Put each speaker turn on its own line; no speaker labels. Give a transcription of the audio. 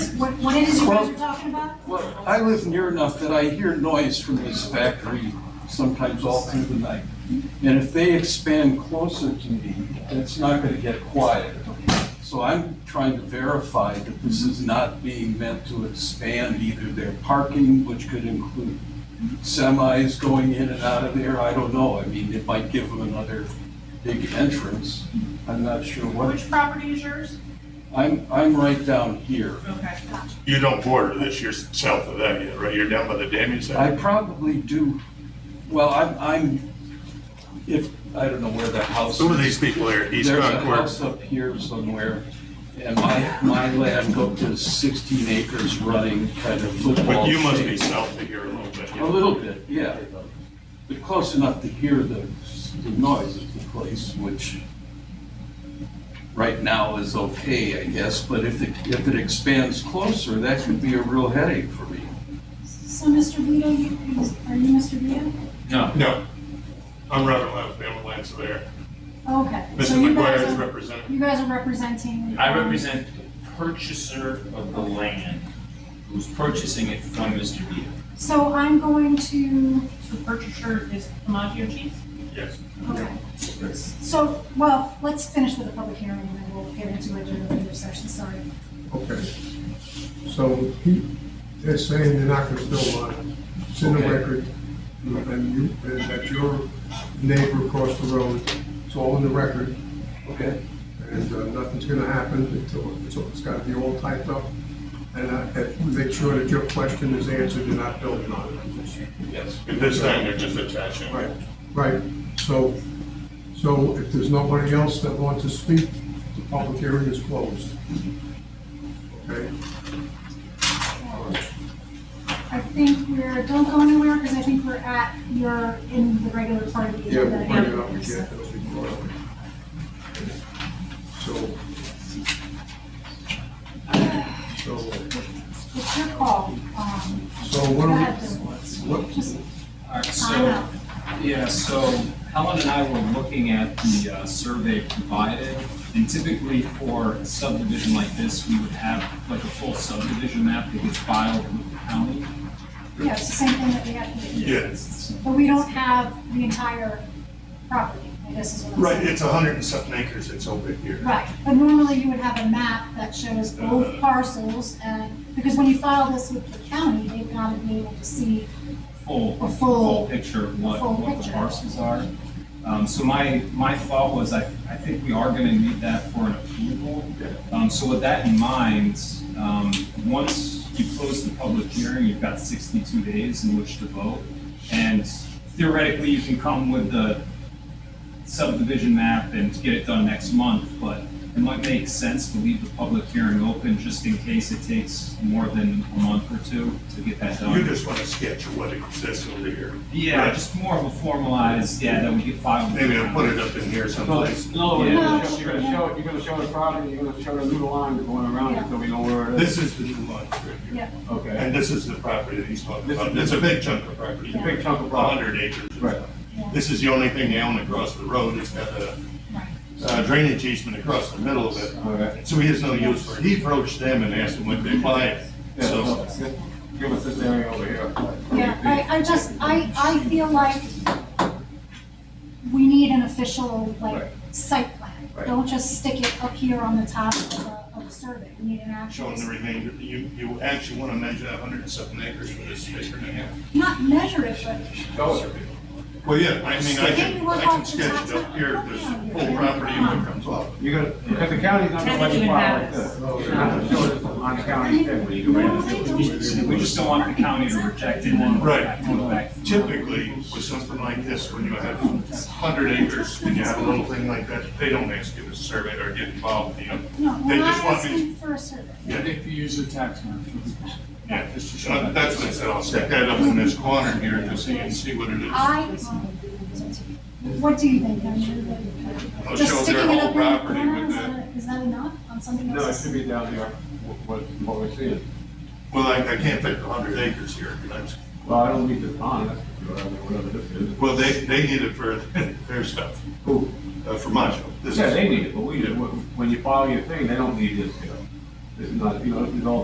What, what it is you guys
Well-
are talking about?
Well, I live near enough that I hear noise from this factory sometimes all through the night. And if they expand closer to me, it's not gonna get quiet. So I'm trying to verify that this is not being meant to expand either their parking, which could include semis going in and out of there, I don't know. I mean, it might give them another big entrance. I'm not sure what.
Which property is yours?
I'm, I'm right down here.
Okay, gotcha.
You don't border this, you're south of that yet, right? You're down by the dam, you
I
said?
probably do, well, I'm, I'm, if, I don't know where the house is.
Some of these people are East
There's a house
Concord.
up here somewhere, and my, my land up to sixteen acres running kind of football
But you must be
shape.
south of here a little bit.
A little bit, yeah, but close enough to hear the, the noise of the place, which right now is okay, I guess, but if it, if it expands closer, that could be a real headache for me.
So, Mr. Vito, you, are you Mr. Vito?
No,
No. I'm Robert Lance, Bama Land Surveyor.
Oh, Okay. So
Mrs.
you guys
McGuire is
are-
representing.
You guys are representing?
I represent the purchaser of the land who's purchasing it from Mr. Vito.
So I'm going to,
So purchaser is Commodore Cheese?
Yes.
okay. So, well, let's finish with the public hearing and then we'll get into it during the regular session, sorry.
Okay. So he, they're saying they're not gonna build on it. It's in the
Okay.
record. And you, and that your neighbor across the road, it's all in the record.
Okay.
And uh, nothing's gonna happen until, it's, it's gotta be all typed up. And uh, and make sure that your question is answered, you're not building on it.
Yes.
At this time, they're just attaching.
Right, right. So, so if there's nobody else that wants to speak, the public hearing is closed. Okay?
I think we're, don't go anywhere because I think we're at, you're in the regular part of the.
Yeah, we'll
agenda.
bring it up again, it'll be brought up. So. So,
It's your call. Um,
so what
go
do
ahead,
we,
Bill.
what,
Just
All right,
time
so,
out.
yeah, so Helen and I were looking at the uh, survey provided. And typically for a subdivision like this, we would have like a full subdivision map that gets filed with the county.
Yeah, it's the same thing that we have to do.
Yes.
But we don't have the entire property, I guess is what I'm
Right,
saying.
it's a hundred and something acres that's over here.
Right, but normally you would have a map that shows both parcels and, because when you file this with the county, they've got to be able to see,
full,
A full-
full picture of what,
full
what the
picture.
parcels are. Um, so my, my thought was, I, I think we are gonna need that for an approval. Um, so with that in mind, um, once you close the public hearing, you've got sixty-two days in which to vote. And theoretically, you can come with the subdivision map and get it done next month, but it might make sense to leave the public hearing open just in case it takes more than a month or two to get that done.
You just want to sketch of what exists over here.
Yeah,
Right.
just more of a formalized, yeah, that we could file.
Maybe I'll put it up in here someplace.
No, you're
Yeah.
gonna show, you're gonna show, you're gonna show the property, you're gonna show the new line going around it, so we know where it is.
This is the new lot right here.
yeah,
Okay.
And this is the property that he's talking about. It's a big chunk of property.
It's a big chunk of
A
property.
hundred acres. or
Right.
something.
yeah,
This is the only thing they own across the road. It's got a
right.
uh, drainage easement across the middle of it.
Okay.
So he has no use for it. He approached them and asked them would they buy it.
Yeah,
So
so this- give us this area over here.
Yeah, I, I just, I, I feel like we need an official, like,
Right.
site plan.
Right.
Don't just stick it up here on the top of the, of the survey, we need an actual.
showing the remainder, you, you actually want to measure a hundred and something acres for this acre and a half.
Not measure it, but
Show it.
Well, yeah, I mean, I
Maybe
can,
we'll
I
have
can
to
sketch it up
talk
here,
about
this
it.
full property and what comes off.
You're gonna, because the county's not gonna let you file like this. You're not gonna show this on the county thing.
normally don't you do
We just don't want the county to reject it and then.
Right.
have to go back.
Typically, with something like this, when you have hundred acres and you have a little thing like that, they don't ask you to survey or get involved, you know.
No,
They
we're not
just want me-
asking for a survey.
Yeah,
you use the tax map.
yeah, Uh, that's what I said, I'll stick that up in this corner here, just so you can see what it is.
I, what do you think? I mean,
I'll
Just
show
sticking
their
it
whole
up in the
property
corner,
with
is
the-
that, is that enough on something else?
No, it should be down there, what, what we see.
Well, I, I can't fit hundred acres here, but I'm-
Well, I don't need this on, that's, whatever this is.
well, they, they need it for their stuff,
Who?
uh, for my show. This
Yeah,
is-
they need it, but we, when you file your thing, they don't need this, you know. This is not, you know, this is all